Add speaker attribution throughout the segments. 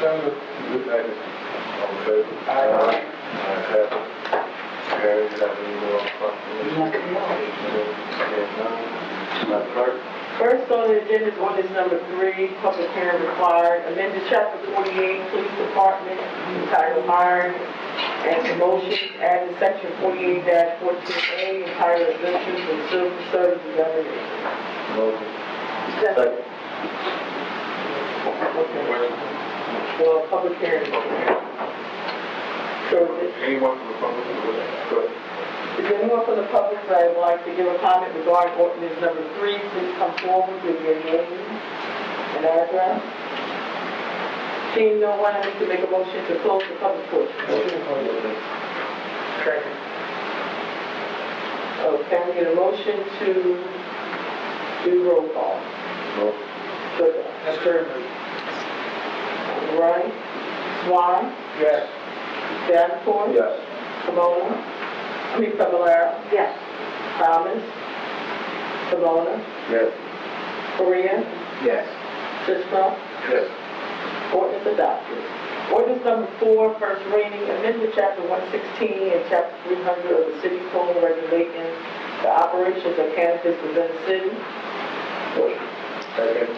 Speaker 1: done with, with that, all in favor?
Speaker 2: Aye.
Speaker 1: Ayes have it. Harry, you have any more questions?
Speaker 2: Nothing else.
Speaker 1: Seeing none, Madam Clerk?
Speaker 2: First on the agenda is ordinance number three, public hearing required, amended chapter forty-eight, police department, entitled hiring and promotions, adding section forty-eight fourteen A, entitled exemptions from civil services revenue.
Speaker 1: Motion. Second.
Speaker 2: Well, public hearing. So is
Speaker 1: Anyone from the public who would like to?
Speaker 2: is there anyone from the public that would like to give a comment regarding ordinance number three? Please come forward with your name and address. Seeing no one, I need to make a motion to close the public portion. Okay, we get a motion to do roll call.
Speaker 1: Motion.
Speaker 2: Sugar. Wright. Swan.
Speaker 1: Yes.
Speaker 2: Davenport.
Speaker 1: Yes.
Speaker 2: Kimona, I mean, Fablelaro. Yes. Thomas. Kimona,
Speaker 1: Yes.
Speaker 2: Korea.
Speaker 1: Yes.
Speaker 2: Sisram.
Speaker 1: Yes.
Speaker 2: Ordinance adopted. Ordinance number four, first reading, amendment chapter one sixteen and chapter three hundred of the city code regulating the operations of cannabis within the city.
Speaker 1: Motion. Second.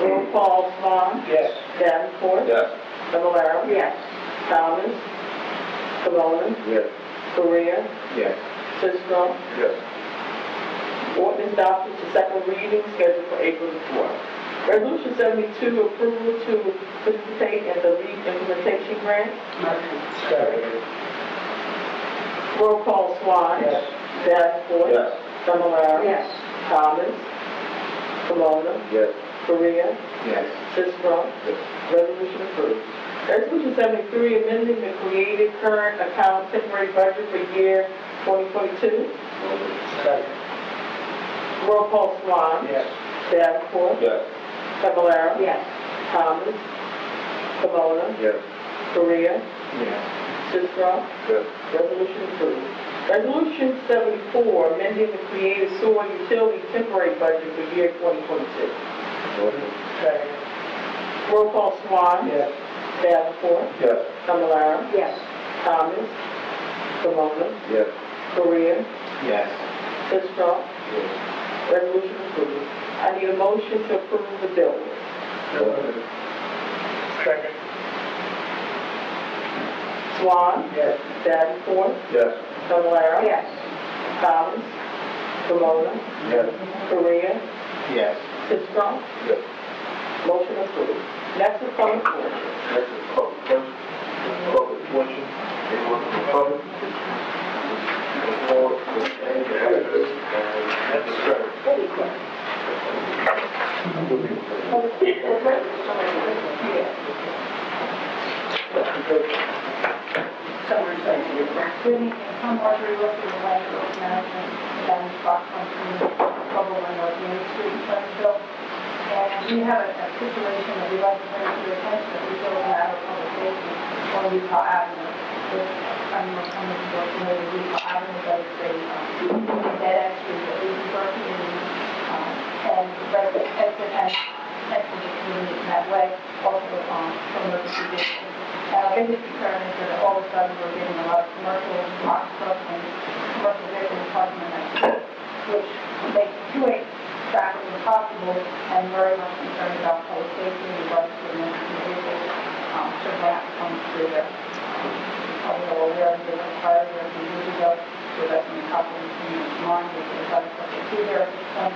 Speaker 2: Roll call, Swan.
Speaker 1: Yes.
Speaker 2: Davenport.
Speaker 1: Yes.
Speaker 2: Fablelaro. Yes. Thomas. Kimona,
Speaker 1: Yes.
Speaker 2: Korea.
Speaker 1: Yes.
Speaker 2: Sisram.
Speaker 1: Yes.
Speaker 2: Ordinance adopted to second reading scheduled for April the fourth. Resolution seventy-two, approval to participate in the lead implementation grant.
Speaker 1: Second.
Speaker 2: Roll call Swan.
Speaker 1: Yes.
Speaker 2: Davenport.
Speaker 1: Yes.
Speaker 2: Familar.
Speaker 3: Yes.
Speaker 2: Thomas. Camona.
Speaker 1: Yes.
Speaker 2: Korea.
Speaker 1: Yes.
Speaker 2: Sisram. Resolution approved. Resolution seventy-three, amending the created current account temporary budget for year twenty twenty-two.
Speaker 1: Motion. Second.
Speaker 2: Roll call Swan.
Speaker 1: Yes.
Speaker 2: Davenport.
Speaker 1: Yes.
Speaker 2: Familar.
Speaker 3: Yes.
Speaker 2: Thomas. Camona.
Speaker 1: Yes.
Speaker 2: Korea.
Speaker 1: Yes.
Speaker 2: Sisram.
Speaker 1: Yes.
Speaker 2: Resolution approved. Resolution seventy-four, amending the creative sewer utility temporary budget for year twenty twenty-two.
Speaker 1: Motion. Second.
Speaker 2: Roll call Swan.
Speaker 1: Yes.
Speaker 2: Davenport.
Speaker 1: Yes.
Speaker 2: Familar.
Speaker 3: Yes.
Speaker 2: Thomas. Camona.
Speaker 1: Yes.
Speaker 2: Korea.
Speaker 1: Yes.
Speaker 2: Sisram. Resolution approved. I need a motion to approve the bill.
Speaker 1: Motion. Second.
Speaker 2: Swan.
Speaker 1: Yes.
Speaker 2: Davenport.
Speaker 1: Yes.
Speaker 2: Familar.
Speaker 3: Yes.
Speaker 2: Thomas. Camona.
Speaker 1: Yes.
Speaker 2: Korea.
Speaker 1: Yes.
Speaker 2: Sisram.
Speaker 1: Yes.
Speaker 2: Motion approved. Next is public portion.
Speaker 1: Next is public portion. Public portion, anyone from the public? Before, any address, and that's the start.
Speaker 4: I'm Marjorie Wilson, the Land Growth Management, and Rock Country, Trouble and Organic Street, Huntsville. And we have a a situation that we'd like to bring to your attention, that we built an out of public safety on Utah Avenue. This, I'm not coming to work near the Utah Avenue, but it's a, um, dead end street that we work in, um, and right at the exit and exit the community in that way, also, um, from the vehicles. And our biggest concern Uh, is that all of a sudden we're getting a lot of commercial box trucks and commercial vehicles parking in that street, which makes two-way traffic impossible and very much concerned about public safety and what the emergency vehicles um, should not come through there. Although we're aware of the fires that we usually go, so that's in the top of the community's mind, we can try to put it through there. Um,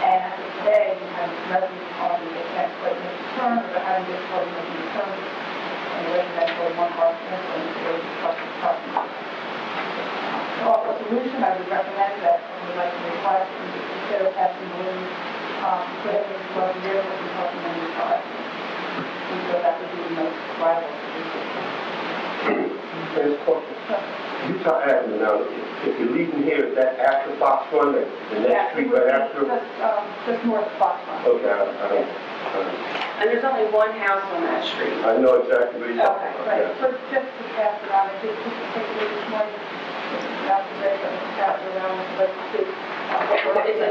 Speaker 4: And as of today, we have residents calling to get that equipment returned, or having this equipment returned and the residential for one car commercial and the other truck and truck. To offer a solution, I would recommend that someone would like to request and to consider passing the lien, um, put it into one year for the park and the car. And so that would be the most viable solution.
Speaker 5: Utah Avenue, now, if you're leaving here, is that after Fox One, the the next street right after?
Speaker 4: Just, um, just north of Foxconn.
Speaker 5: Okay, I, I,
Speaker 3: And there's only one house on that street.
Speaker 5: I know exactly where you're
Speaker 4: Okay,
Speaker 5: talking
Speaker 4: right, so just to pass it on, I did just take it this morning, that's the, that's around, but it's. uh,
Speaker 3: It's a